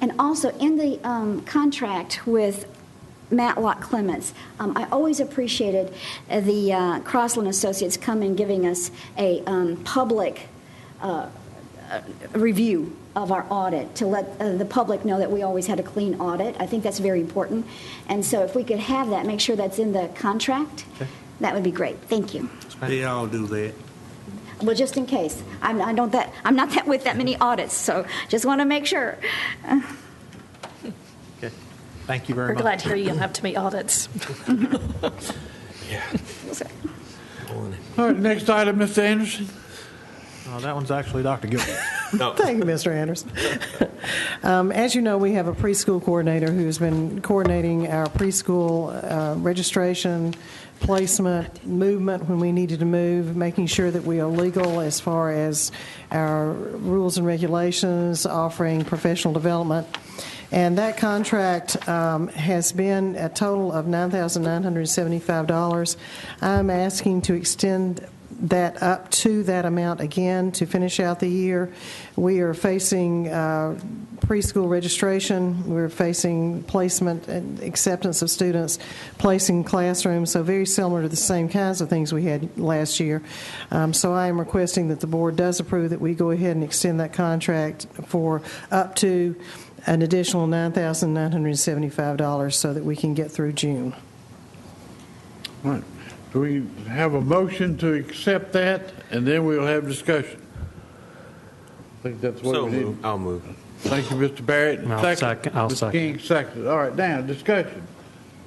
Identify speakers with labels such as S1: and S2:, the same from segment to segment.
S1: And also, in the um, contract with Matlock Clements, um, I always appreciated uh, the uh, Crossland Associates come and giving us a um, public uh, review of our audit, to let uh, the public know that we always had a clean audit. I think that's very important. And so if we could have that, make sure that's in the contract, that would be great. Thank you.
S2: They all do that.
S1: Well, just in case, I'm, I don't that, I'm not that with that many audits, so just want to make sure.
S3: Okay. Thank you
S4: We're
S3: very much.
S4: glad to hear you don't have to meet audits.
S5: All right, next item, Mr. Anderson.
S3: Oh, That one's actually Dr. Gilbert.
S6: Thank you, Mr. Anderson. Um, As you know, we have a preschool coordinator who's been coordinating our preschool uh, registration, placement, movement when we needed to move, making sure that we are legal as far as our rules and regulations, offering professional development. And that contract um, has been a total of $9,975. I'm asking to extend that up to that amount again to finish out the year. We are facing uh, preschool registration, we're facing placement and acceptance of students, placing classrooms, so very similar to the same kinds of things we had last year. Um, So I am requesting that the board does approve that we go ahead and extend that contract for up to an additional $9,975 so that we can get through June.
S5: All right. Do we have a motion to accept that, and then we'll have discussion? I think that's what
S7: So
S5: we
S7: move.
S5: need.
S7: I'll move.
S5: Thank you, Mr. Barrett.
S3: I'll second- I'll
S5: Ms.
S3: second.
S5: King, second. All right, now, discussion.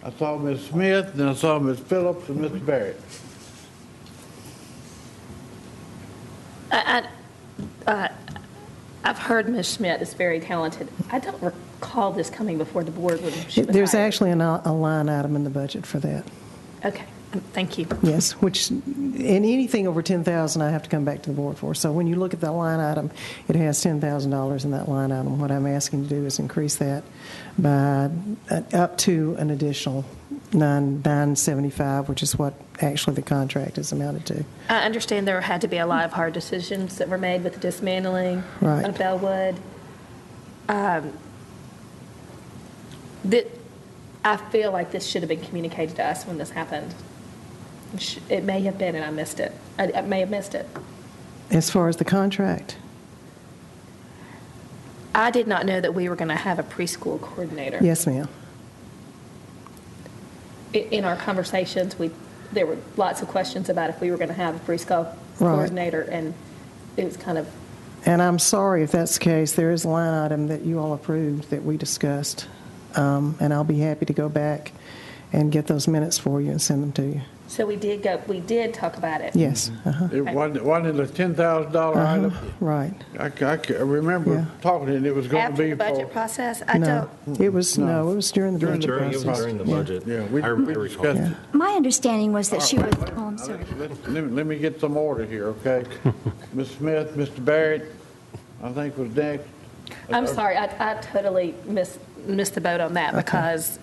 S5: I saw Ms. Smith, and I saw Ms. Phillips and Mr. Barrett.
S4: I, I, uh, I've heard Ms. Schmidt is very talented. I don't recall this coming before the board when she was
S6: There's
S4: hired.
S6: actually an- a line item in the budget for that.
S4: Okay, um, thank you.
S6: Yes, which, and anything over 10,000 I have to come back to the board for. So when you look at that line item, it has $10,000 in that line item. What I'm asking to do is increase that by uh, up to an additional nine 975, which is what actually the contract is amounted to.
S4: I understand there had to be a lot of hard decisions that were made with the dismantling
S6: Right.
S4: of Bellwood. Um, That, I feel like this should have been communicated to us when this happened. It sh- It may have been, and I missed it. I I may have missed it.
S6: As far as the contract,
S4: I did not know that we were going to have a preschool coordinator.
S6: yes, ma'am.
S4: I- In our conversations, we, there were lots of questions about if we were going to have a preschool
S6: Right.
S4: coordinator, and it was kind of,
S6: And I'm sorry if that's the case. There is a line item that you all approved that we discussed. Um, And I'll be happy to go back and get those minutes for you and send them to you.
S4: so we did go, we did talk about it.
S6: Yes, uh-huh,
S5: It wasn't, wasn't it a $10,000
S4: Uh-huh.
S5: item?
S6: right.
S5: I, c- I c- I remember
S6: Yeah.
S5: talking, and it was going to
S4: After
S5: be
S4: the budget
S5: for.
S4: process, I
S6: No,
S4: don't,
S6: it was, no, it was during the
S5: During the
S6: budget
S7: During, it was
S6: process.
S7: during the
S6: Yeah.
S7: budget.
S5: Yeah, we
S7: I
S5: we
S7: I recall.
S5: discussed it.
S1: My understanding was that she was,
S5: All right,
S1: oh, I'm
S5: now,
S1: sorry.
S5: let's- let's- Let me, let me get some order here, okay? Ms. Smith, Mr. Barrett, I think was next.
S4: I'm sorry, I, I totally missed, missed the boat on that because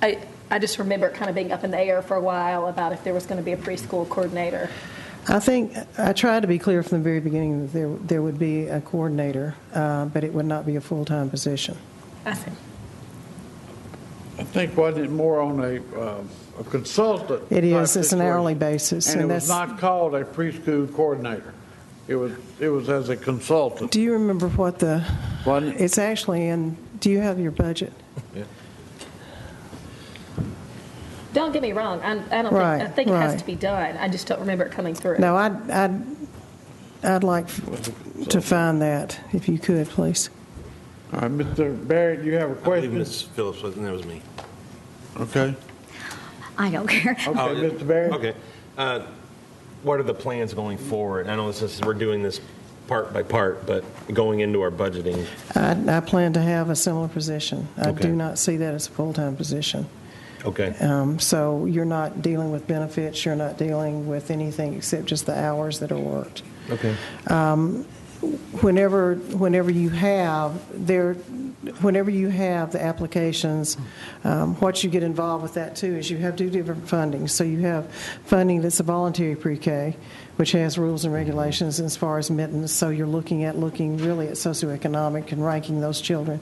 S4: I, I just remember it kind of being up in the air for a while about if there was going to be a preschool coordinator.
S6: I think, I tried to be clear from the very beginning that there, there would be a coordinator, uh, but it would not be a full-time position.
S4: I said,
S5: I think wasn't it more on a, um, a consultant?
S6: It is,
S5: type
S6: it's an hourly
S5: situation?
S6: basis,
S5: And
S6: and
S5: it was
S6: that's-
S5: not called a preschool coordinator. It was, it was as a consultant.
S6: Do you remember what the,
S5: Wasn't it?
S6: it's actually in, do you have your budget?
S4: don't get me wrong, I'm, I don't think, I
S6: Right,
S4: think it has
S6: right.
S4: to be done. I just don't remember it coming through.
S6: No, I'd, I'd, I'd like to find that, if you could, please.
S5: All right, Mr. Barrett, you have a
S7: I believe
S5: question?
S7: Ms. Phillips was, and that was me.
S5: Okay.
S1: I don't care.
S5: Okay,
S7: Oh, yeah.
S5: Mr. Barrett?
S7: Okay. Uh, What are the plans going forward? I know this is, we're doing this part by part, but going into our budgeting,
S6: I, I plan to have a similar position. I
S7: Okay.
S6: do not see that as a full-time position.
S7: okay.
S6: Um, So you're not dealing with benefits, you're not dealing with anything except just the hours that are worked.
S7: Okay.
S6: Um, whenever, whenever you have, there, whenever you have the applications, um, what you get involved with that too is you have two different fundings. So you have funding that's a voluntary pre-K, which has rules and regulations as far as mittens. So you're looking at, looking really at socioeconomic and ranking those children.